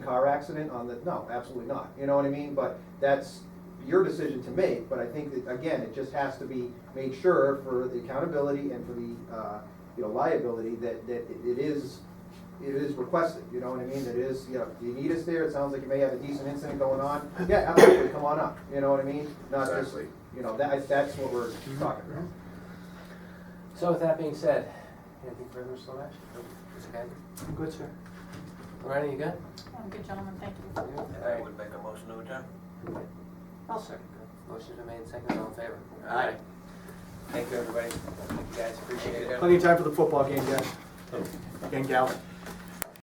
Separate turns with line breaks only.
car accident on the, no, absolutely not, you know what I mean? But that's your decision to make, but I think that, again, it just has to be made sure for the accountability and for the, uh, you know, liability that, that it- it is, it is requested, you know what I mean? It is, you know, you need us there, it sounds like you may have a decent incident going on, yeah, absolutely, come on up, you know what I mean? Not just,
Exactly.
you know, that, that's what we're talking about.
So with that being said, anything further, Slavesh? Is it good?
Good, sir.
Loretta, you good?
Um, Good gentleman, thank you.
You? All
And I
right.
would make a motion to adjourn.
I'll second that. Motion's been made, second, all in favor? Aye. Thank you, everybody. Thank you, guys, appreciate it.
Plenty of time for the football game, guys. And gal.